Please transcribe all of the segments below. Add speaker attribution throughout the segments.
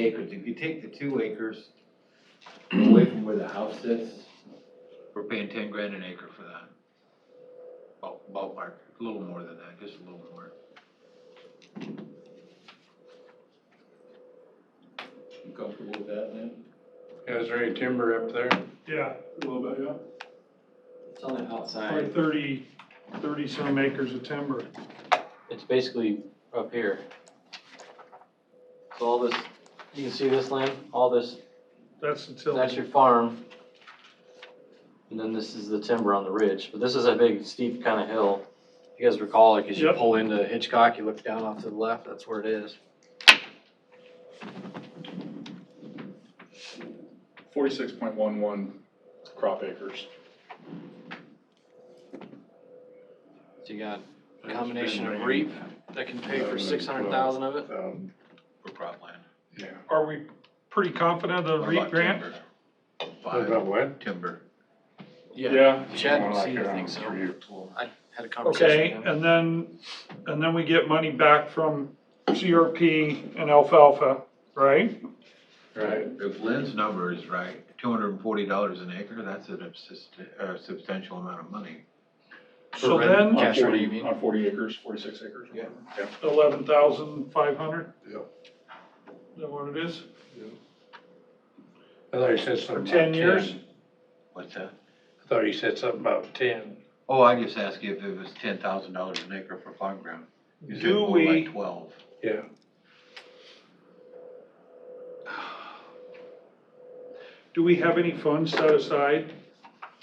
Speaker 1: acres, if you take the two acres away from where the house is, we're paying ten grand an acre for that. Ball- Ballpark, a little more than that, just a little more. You comfortable with that, Lynn?
Speaker 2: Yeah, is there any timber up there?
Speaker 3: Yeah,
Speaker 4: A little bit, yeah.
Speaker 5: It's on the
Speaker 3: probably
Speaker 5: outside.
Speaker 3: thirty, thirty some acres of timber.
Speaker 5: It's basically up here. So all this, you can see this land, all this,
Speaker 3: That's the
Speaker 5: that's
Speaker 3: tillage.
Speaker 5: your farm. And then this is the timber on the ridge, but this is a big steep kind of hill. If You guys recall, like as you
Speaker 3: Yep.
Speaker 5: pull into Hitchcock, you look down off to the left, that's where it is.
Speaker 4: Forty-six point one one crop acres.
Speaker 5: So you got a combination of REAP that can pay for six hundred thousand of it.
Speaker 4: Um,
Speaker 1: For cropland.
Speaker 4: yeah.
Speaker 3: Are we pretty confident of the
Speaker 1: What about
Speaker 3: REAP grant?
Speaker 1: timber? Five,
Speaker 2: what?
Speaker 1: timber.
Speaker 4: Yeah.
Speaker 5: Chad
Speaker 4: More like
Speaker 5: seemed to
Speaker 4: around
Speaker 5: think so.
Speaker 4: three or four.
Speaker 5: I had a conversation
Speaker 3: Okay,
Speaker 5: with him.
Speaker 3: and then, and then we get money back from CRP and alfalfa, right?
Speaker 4: Right.
Speaker 1: If Lynn's number is right, two hundred and forty dollars an acre, that's an subsist- uh, substantial amount of money.
Speaker 3: So
Speaker 5: rent.
Speaker 3: then,
Speaker 4: On
Speaker 5: Cash, what do you
Speaker 4: forty,
Speaker 5: mean?
Speaker 4: on forty acres, forty-six acres.
Speaker 1: Yeah.
Speaker 3: eleven thousand five hundred?
Speaker 4: Yep.
Speaker 3: Is that what it is?
Speaker 2: I thought you said something
Speaker 3: For
Speaker 2: about
Speaker 3: ten
Speaker 2: ten.
Speaker 3: years?
Speaker 1: What's that?
Speaker 2: I thought you said something about ten.
Speaker 1: Oh, I just asked you if it was ten thousand dollars an acre for farm ground. You said
Speaker 3: Do
Speaker 1: more
Speaker 3: we-
Speaker 1: like Twelve.
Speaker 2: Yeah.
Speaker 3: Do we have any funds set aside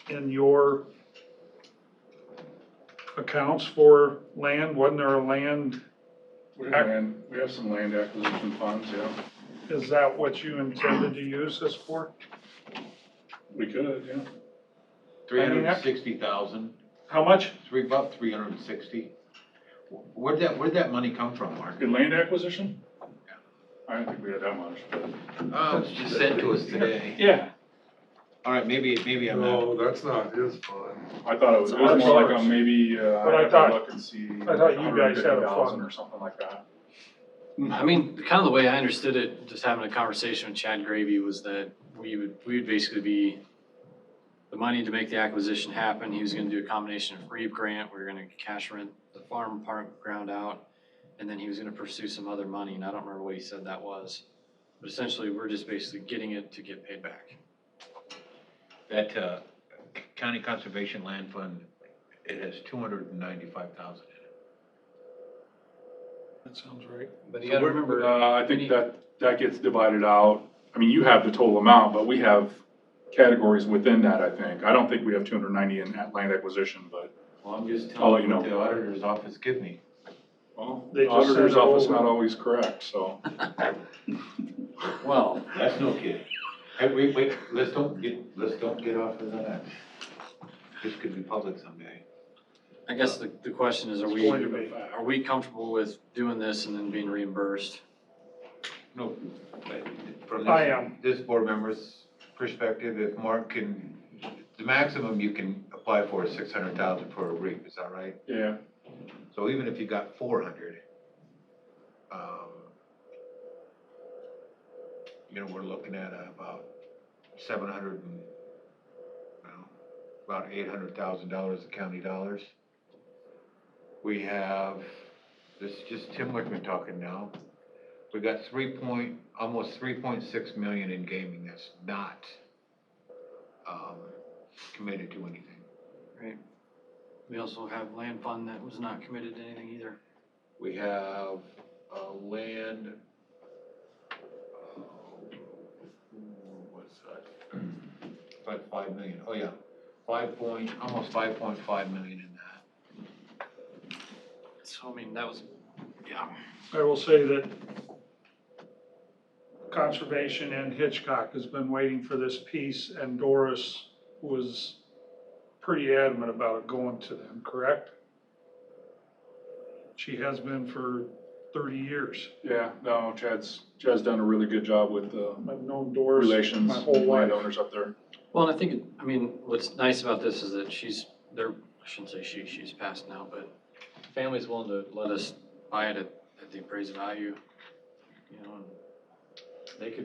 Speaker 3: in your accounts for land? Wasn't there a land,
Speaker 4: We have land, we have some land acquisition funds, yeah.
Speaker 3: is that what you intended to use this for?
Speaker 4: We could, yeah.
Speaker 1: Three
Speaker 3: I mean,
Speaker 1: hundred and
Speaker 3: that-
Speaker 1: sixty thousand,
Speaker 3: How much?
Speaker 1: three, about three hundred and sixty. Where'd that, where'd that money come from, Mark?
Speaker 4: In land acquisition? I don't think we had that much, but.
Speaker 1: Oh, it's just sent to us today.
Speaker 3: Yeah.
Speaker 1: All right, maybe, maybe I'm not.
Speaker 6: No, that's not his fund.
Speaker 4: I thought it was,
Speaker 3: It's
Speaker 4: it was more like
Speaker 3: ours.
Speaker 4: a maybe, uh,
Speaker 3: But I
Speaker 4: I have to
Speaker 3: thought-
Speaker 4: look and see.
Speaker 3: I thought you guys had a
Speaker 4: $150,000
Speaker 3: fund.
Speaker 4: Or something like that.
Speaker 5: I mean, kind of the way I understood it, just having a conversation with Chad Gravy was that we would, we would basically be the money to make the acquisition happen, he was gonna do a combination of REAP grant, we were gonna cash rent the farm park ground out, and then he was gonna pursue some other money, and I don't remember what he said that was. But essentially, we're just basically getting it to get paid back.
Speaker 1: That, uh, County Conservation Land Fund, it has two hundred and ninety-five thousand in
Speaker 3: That sounds right.
Speaker 5: But you
Speaker 4: So
Speaker 5: gotta
Speaker 4: we're-
Speaker 5: remember,
Speaker 4: Uh, I
Speaker 5: any-
Speaker 4: think that, that gets divided out. I mean, you have the total amount, but we have categories within that, I think. I don't think we have two hundred ninety in that land acquisition, but.
Speaker 1: it. Well, I'm just
Speaker 4: I'll let
Speaker 1: telling
Speaker 4: you
Speaker 1: you what
Speaker 4: know.
Speaker 1: the auditor's office give me.
Speaker 4: Well,
Speaker 3: They
Speaker 4: the
Speaker 3: just sent
Speaker 4: auditor's
Speaker 3: it
Speaker 4: office
Speaker 3: over.
Speaker 4: not always correct, so.
Speaker 5: well,
Speaker 1: That's no kid. Hey, wait, wait, let's don't get, let's don't get off of that. This could be public someday.
Speaker 5: I guess the, the question is, are
Speaker 3: It's
Speaker 5: we,
Speaker 3: going to be.
Speaker 5: are we comfortable with doing this and then being reimbursed?
Speaker 1: No, but from
Speaker 3: I
Speaker 1: this,
Speaker 3: am.
Speaker 1: this board member's perspective, if Mark can, the maximum you can apply for is six hundred thousand for a REAP, is that right?
Speaker 4: Yeah,
Speaker 1: So even if you got four hundred, um, you know, we're looking at about seven hundred and, well, about eight hundred thousand dollars of county dollars. We have, this is just Tim Wickman talking now. We got three point, almost three point six million in gaming that's not, um, committed to anything.
Speaker 5: We also have land fund that was not committed to anything either.
Speaker 1: We have, uh, land. uh, What's that? About five million. Oh yeah, five point, almost five point five million in that.
Speaker 5: So, I mean, that was, yeah.
Speaker 3: I will say that Conservation and Hitchcock has been waiting for this piece, and Doris was pretty adamant about it going to them, correct? She has been for thirty years.
Speaker 4: yeah, no, Chad's, Chad's done a really good job with the
Speaker 3: I've known Doris
Speaker 4: relations,
Speaker 3: my whole
Speaker 4: with
Speaker 3: life.
Speaker 4: landowners up there.
Speaker 5: Well, and I think, I mean, what's nice about this is that she's, they're, I shouldn't say she, she's passed now, but the family's willing to let us buy it at, at the appraised value, you know, and They could